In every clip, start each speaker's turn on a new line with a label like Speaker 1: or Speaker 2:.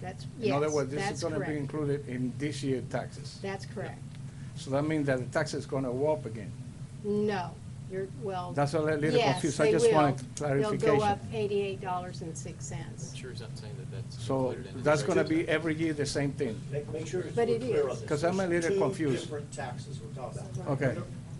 Speaker 1: That's,
Speaker 2: In
Speaker 1: yes,
Speaker 2: other words, this
Speaker 1: that's
Speaker 2: is gonna be
Speaker 1: correct.
Speaker 2: included in this year's taxes.
Speaker 1: That's correct.
Speaker 2: So that means that the tax is gonna go up again.
Speaker 1: No, you're, well.
Speaker 2: That's what I little
Speaker 1: yes,
Speaker 2: confused. I
Speaker 1: they
Speaker 2: just
Speaker 1: will.
Speaker 2: wanted
Speaker 1: They'll go
Speaker 2: clarification.
Speaker 1: up eighty-eight dollars and six cents.
Speaker 3: Sure as I'm saying that that's
Speaker 2: So
Speaker 3: included in. the
Speaker 2: that's gonna be
Speaker 3: regular
Speaker 2: every year the same thing.
Speaker 4: Make, make sure it's
Speaker 1: But
Speaker 4: we're
Speaker 1: it
Speaker 4: clear
Speaker 1: is.
Speaker 4: on this.
Speaker 2: 'Cause I'm a
Speaker 4: There's
Speaker 2: little
Speaker 4: two
Speaker 2: confused.
Speaker 4: different taxes we're talking about.
Speaker 2: Okay.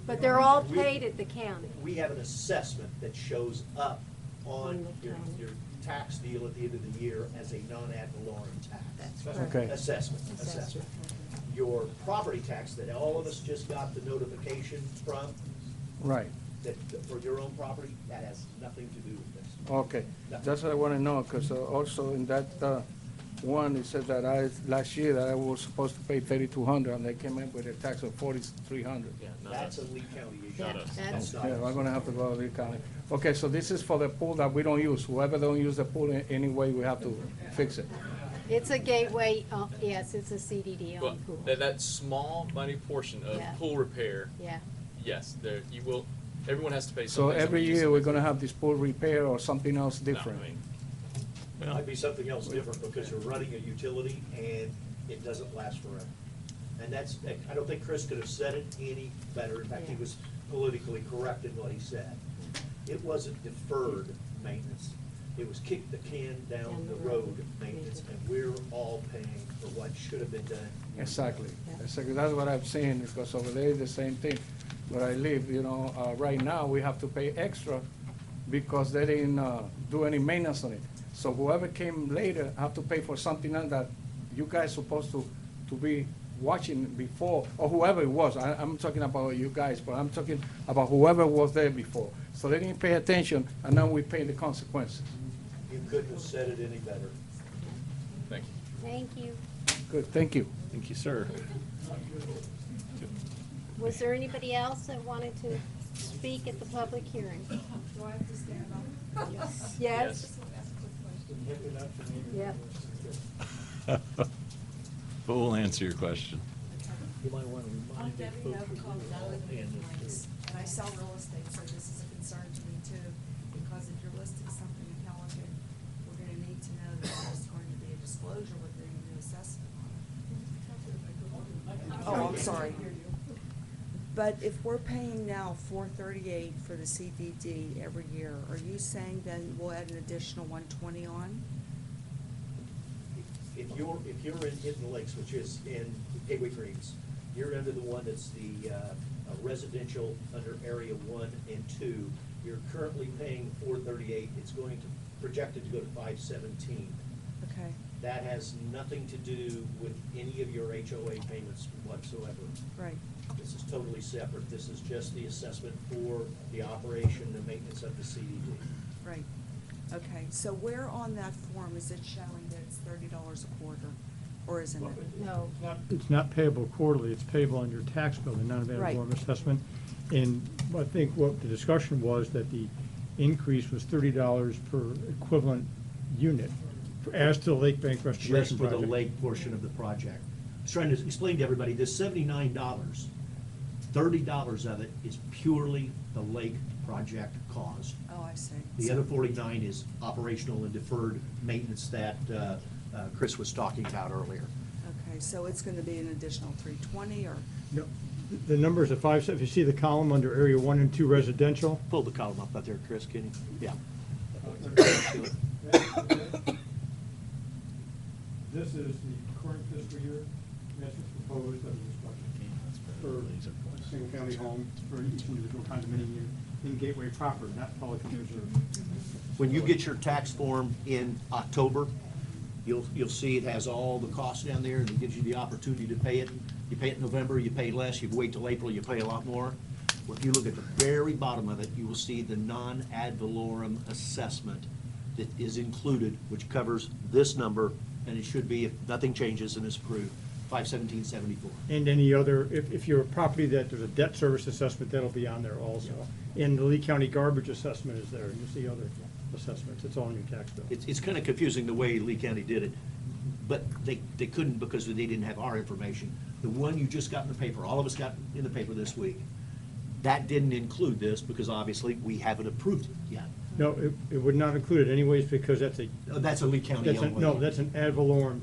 Speaker 5: But they're all
Speaker 4: We-
Speaker 5: paid at the county.
Speaker 4: We have an assessment that shows up on
Speaker 1: On the
Speaker 4: your,
Speaker 1: county.
Speaker 4: your tax deal at the end of the year as a non-ad valorem tax.
Speaker 1: That's
Speaker 2: correct. Okay.
Speaker 4: Assessment, assessment.
Speaker 1: Assessment.
Speaker 4: Your property tax that all of us just got the notification from,
Speaker 2: Right,
Speaker 4: that, that for your own property, that has nothing to do with this.
Speaker 2: okay. That's what I wanna know, because also in that, uh, one, it said that I, last year, that I was supposed to pay thirty-two hundred, and they came in with a tax of forty-three hundred.
Speaker 3: tax. Yeah, no,
Speaker 4: That's a Lee County issue.
Speaker 1: Yeah, that's-
Speaker 4: That's not
Speaker 2: Yeah, we're
Speaker 4: us.
Speaker 2: gonna have to go to the county. Okay, so this is for the pool that we don't use. Whoever don't use the pool in any way, we have to fix it.
Speaker 1: It's a gateway, uh, yes, it's a CDD
Speaker 3: Well,
Speaker 1: on pool.
Speaker 3: that, that small money portion of
Speaker 1: Yeah.
Speaker 3: pool repair,
Speaker 1: Yeah,
Speaker 3: yes, there, you will, everyone has to pay
Speaker 2: So
Speaker 3: something.
Speaker 2: every year, we're gonna have this pool repair or something else
Speaker 3: No, I
Speaker 2: different.
Speaker 3: mean,
Speaker 4: It might be something else different because you're running a utility and it doesn't last forever. And that's, I don't think Chris could have said it any better. In fact, he
Speaker 1: Yeah.
Speaker 4: was politically correct in what he said. It wasn't deferred maintenance. It was kick the can down the road maintenance, and we're all paying for what should have been done.
Speaker 2: Exactly,
Speaker 1: Yeah.
Speaker 2: exactly, that's what I'm saying, because over there, the same thing, where I live, you know, uh, right now, we have to pay extra because they didn't, uh, do any maintenance on it. So whoever came later have to pay for something else that you guys supposed to, to be watching before, or whoever it was, I, I'm talking about you guys, but I'm talking about whoever was there before. So they didn't pay attention, and now we pay the consequences.
Speaker 4: You couldn't have said it any better.
Speaker 3: Thank you.
Speaker 1: thank you.
Speaker 2: Good, thank you.
Speaker 6: Thank you, sir.
Speaker 1: Was there anybody else that wanted to speak at the public hearing?
Speaker 7: Do I have to stand up? Yes.
Speaker 3: Yes.
Speaker 7: Just wanna ask a quick question.
Speaker 1: Yep.
Speaker 6: But we'll answer your question.
Speaker 4: You might want to
Speaker 7: I'm Debbie Novick, Donovan Planks, and I sell real estate, so this is a concern to me too, because if you're listing something in Pelican, we're gonna need to know that there's going to be a disclosure with their new assessment on it.
Speaker 8: Oh, I'm sorry. But if we're paying now four thirty-eight for the CDD every year, are you saying then we'll add an additional one twenty on?
Speaker 4: If you're, if you're in Hidden Lakes, which is in Gateway Greens, you're under the one that's the uh, uh, residential under area one and two. You're currently paying four thirty-eight, it's going to, projected to go to five seventeen.
Speaker 8: Okay,
Speaker 4: That has nothing to do with any of your HOA payments whatsoever.
Speaker 8: right,
Speaker 4: This is totally separate, this is just the assessment for the operation and maintenance of the CDD.
Speaker 8: right. Okay, so where on that form is it showing that it's thirty dollars a quarter, or isn't it?
Speaker 1: No,
Speaker 9: It's not payable quarterly, it's payable on your tax bill, the non
Speaker 8: Right.
Speaker 9: valorem assessment. And I think what the discussion was that the increase was thirty dollars per equivalent unit for- as to the Lake Bank
Speaker 4: just
Speaker 9: Restoration
Speaker 4: for the
Speaker 9: Project.
Speaker 4: lake portion of the project. I was trying to explain to everybody, this seventy-nine dollars, thirty dollars of it is purely the lake project cost.
Speaker 8: Oh, I see.
Speaker 4: The other forty-nine is operational and deferred maintenance that uh, uh, Chris was talking about earlier.
Speaker 8: Okay, so it's gonna be an additional three twenty, or,
Speaker 9: No, the- The numbers are five, if you see the column under area one and two residential,
Speaker 4: Pull the column up out there, Chris, can you? Yeah.
Speaker 9: This is the current fiscal year, that's what's proposed under this budget for a single-family home for each individual condominium unit in Gateway proper, not Pelican Reserve.
Speaker 4: When you get your tax form in October, you'll, you'll see it has all the costs down there, and it gives you the opportunity to pay it. You pay it in November, you pay less, you wait till April, you pay a lot more. Well, If you look at the very bottom of it, you will see the non-ad valorem assessment that is included, which covers this number, and it should be, if nothing changes and is approved, five seventeen seventy-four.
Speaker 9: And any other, if, if you're a property that there's a debt service assessment, that'll be on there also. And the Lee County garbage assessment is there, and you see other assessments, it's all in your tax bill.
Speaker 4: It's, it's kind of confusing the way Lee County did it, but they, they couldn't because they didn't have our information. The one you just got in the paper, all of us got in the paper this week, that didn't include this because obviously we haven't approved it yet.
Speaker 9: No, it, it would not include it anyways, because that's a,
Speaker 4: Uh, That's a Lee County
Speaker 9: that's a,
Speaker 4: only.
Speaker 9: no, that's an ad valorem